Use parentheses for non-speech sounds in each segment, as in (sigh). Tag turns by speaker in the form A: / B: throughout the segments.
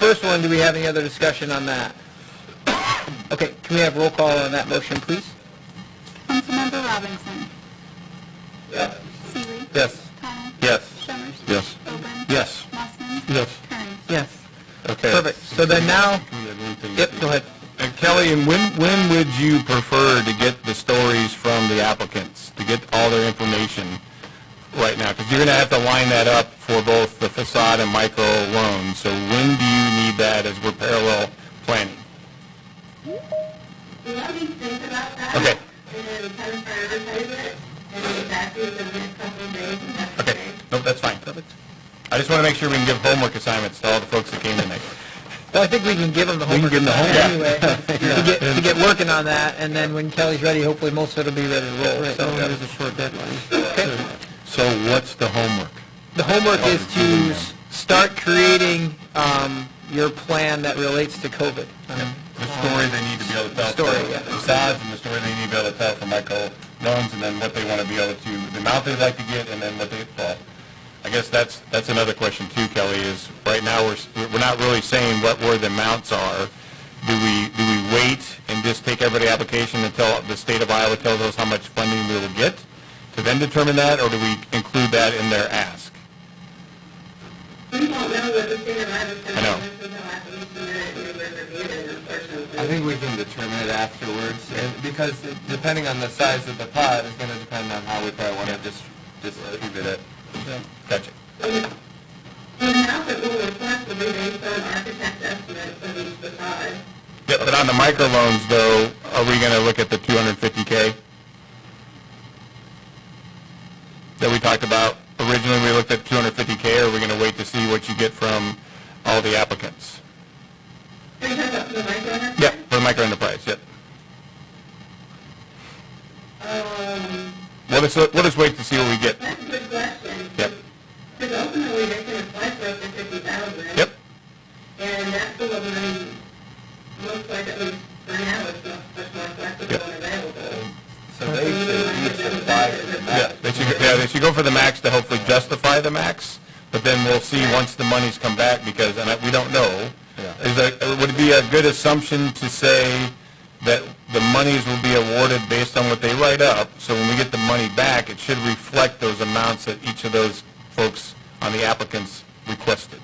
A: first one, do we have any other discussion on that? Okay, can we have roll call on that motion, please?
B: Councilmember Robinson. Seeley.
A: Yes.
B: Connor.
C: Yes.
B: Summers.
C: Yes.
B: Oben.
C: Yes.
B: Mossman.
C: Yes.
B: Kearns.
A: Yes.
C: Okay.
A: Perfect. So then now, yep, go ahead.
C: And Kelly, and when, when would you prefer to get the stories from the applicants, to get all their information right now? Because you're going to have to line that up for both the facade and micro loans. So when do you need that as we're parallel planning?
D: Let me think about that.
C: Okay.
D: And then kind of prioritize it, and then exactly the next couple of days, and that's
C: Okay,
D: okay.
C: nope, that's fine. I just want to make sure we can give homework assignments to all the folks that came tonight.
A: Well, I think we can give them the
C: We can
A: homework
C: give them the
A: assignment anyway,
C: homework.
A: (laughs) to get, to get working on that, and then when Kelly's ready, hopefully most of it'll be ready to roll.
C: Right,
A: So-
C: no, there's
A: Okay.
C: a So what's the homework?
A: The homework is to s-
C: Yeah.
A: start creating, um, your plan that relates to COVID. Um,
C: The story they need to be able to tell.
A: Story,
C: for
A: yeah.
C: Facades and the story they need to be able to tell for micro loans and then what they want to be able to, the amount they'd like to get and then what they, well, I guess that's, that's another question too, Kelly, is right now we're, s- we're not really saying what where the amounts are. Do we, do we wait and just take every application until the state of Iowa tells us how much funding we will get to then determine that, or do we include that in their ask?
D: We don't know what the state of Iowa's
C: I
D: gonna
C: know.
D: do after we submit it, and we're reviewing it, unfortunately.
E: I think we can determine it afterwards,
C: eh,
E: and- because it- depending on the size of the pot is gonna depend on how we probably wanna dis- distribute it.
C: Gotcha.
D: The amount that we'll request will be based on architect estimates of each facade.
C: Yeah, but on the micro loans though, are we gonna look at the two hundred and fifty K? That we talked about, originally we looked at two hundred and fifty K, or are we gonna wait to see what you get from all the applicants?
D: Are you talking about the micro?
C: Yeah, for the micro enterprise, yep.
D: Um,
C: We'll just, we'll just wait to see what we get,
D: that's a good question.
C: yep,
D: Because ultimately, they can apply for up to fifty thousand.
C: yep,
D: And that's the one that looks like at least for now, it's not much more flexible and available.
E: So they should each apply for the
C: yeah.
E: match.
C: They should, go- yeah, they should go for the max to hopefully justify the max, but then we'll see once the money's come back, because, and I- we don't know.
E: Yeah.
C: Is that, would it be a good assumption to say that the monies will be awarded based on what they write up? So when we get the money back, it should reflect those amounts that each of those folks on the applicants requested?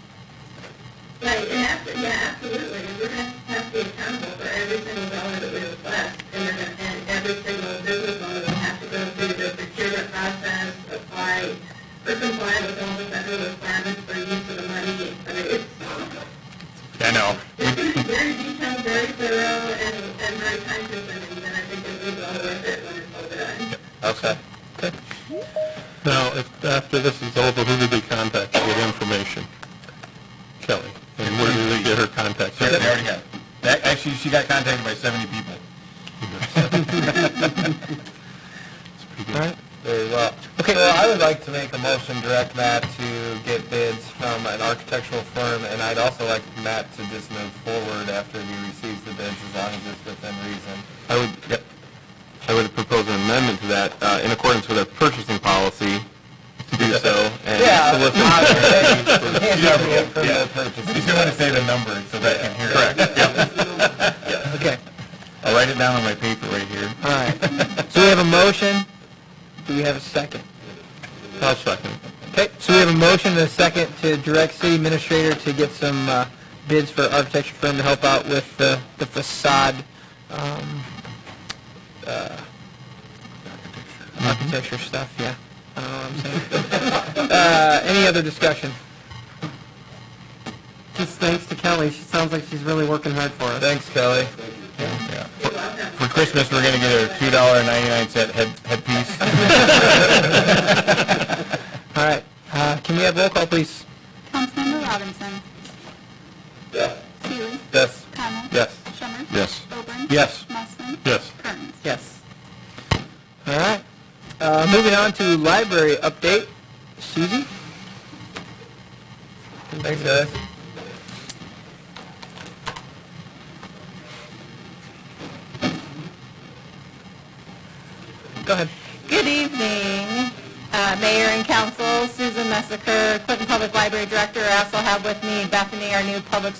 D: Right, and abso- yeah, absolutely, and we're gonna have to be accountable for every single dollar that we request, and we're gonna, and every single business owner will have to go through the procurement process, apply, or comply with all the federal requirements for use of the money. I mean, it's,
C: I know.
D: it's gonna be very detailed, very thorough, and, and very time consuming, and I think it will be well worth it when it's all done.
C: Okay.
F: Now, if, after this is over, who do they contact to get information? Kelly. And where do they get her contact?
C: They already have. That, actually, she got contacted by 70 people.
E: Very well. Okay, well, I would like to make a motion, direct Matt to get bids from an architectural firm, and I'd also like Matt to just move forward after he receives the bids, as long as it's within reason.
F: I would, yep. I would propose an amendment to that, uh, in accordance with our purchasing policy, to do so, and
E: obviously, you
F: solicit-
E: can't do it for the purchase.
C: You still want to say the number so that I can hear it. Correct.
A: Okay,
C: I'll write it down on my paper right here.
A: all right. So we have a motion, do we have a second?
F: I'll second.
A: Okay, so we have a motion and a second to direct city administrator to get some uh, bids for architecture firm to help out with the the facade um, uh, architecture stuff, yeah. I don't know what I'm saying. Uh, Any other discussion? Just thanks to Kelly, she sounds like she's really working hard for us.
E: Thanks, Kelly.
C: Yeah. For- For Christmas, we're going to get her $2.99 head headpiece.
A: All right, uh, can we have roll call, please?
B: Councilmember Robinson. Seeley.
E: Yes.
B: Connor.
E: Yes.
B: Summers.
F: Yes.
B: Oben.
C: Yes.
B: Mossman.
F: Yes.
B: Kearns.
A: Yes. All right, Uh, moving on to library update. Susie?
E: Thanks, guys.
A: Go ahead.
G: Good evening, uh, Mayor and Council, Susan Messaker, Clinton Public Library Director. I also have with me Bethany, our new Public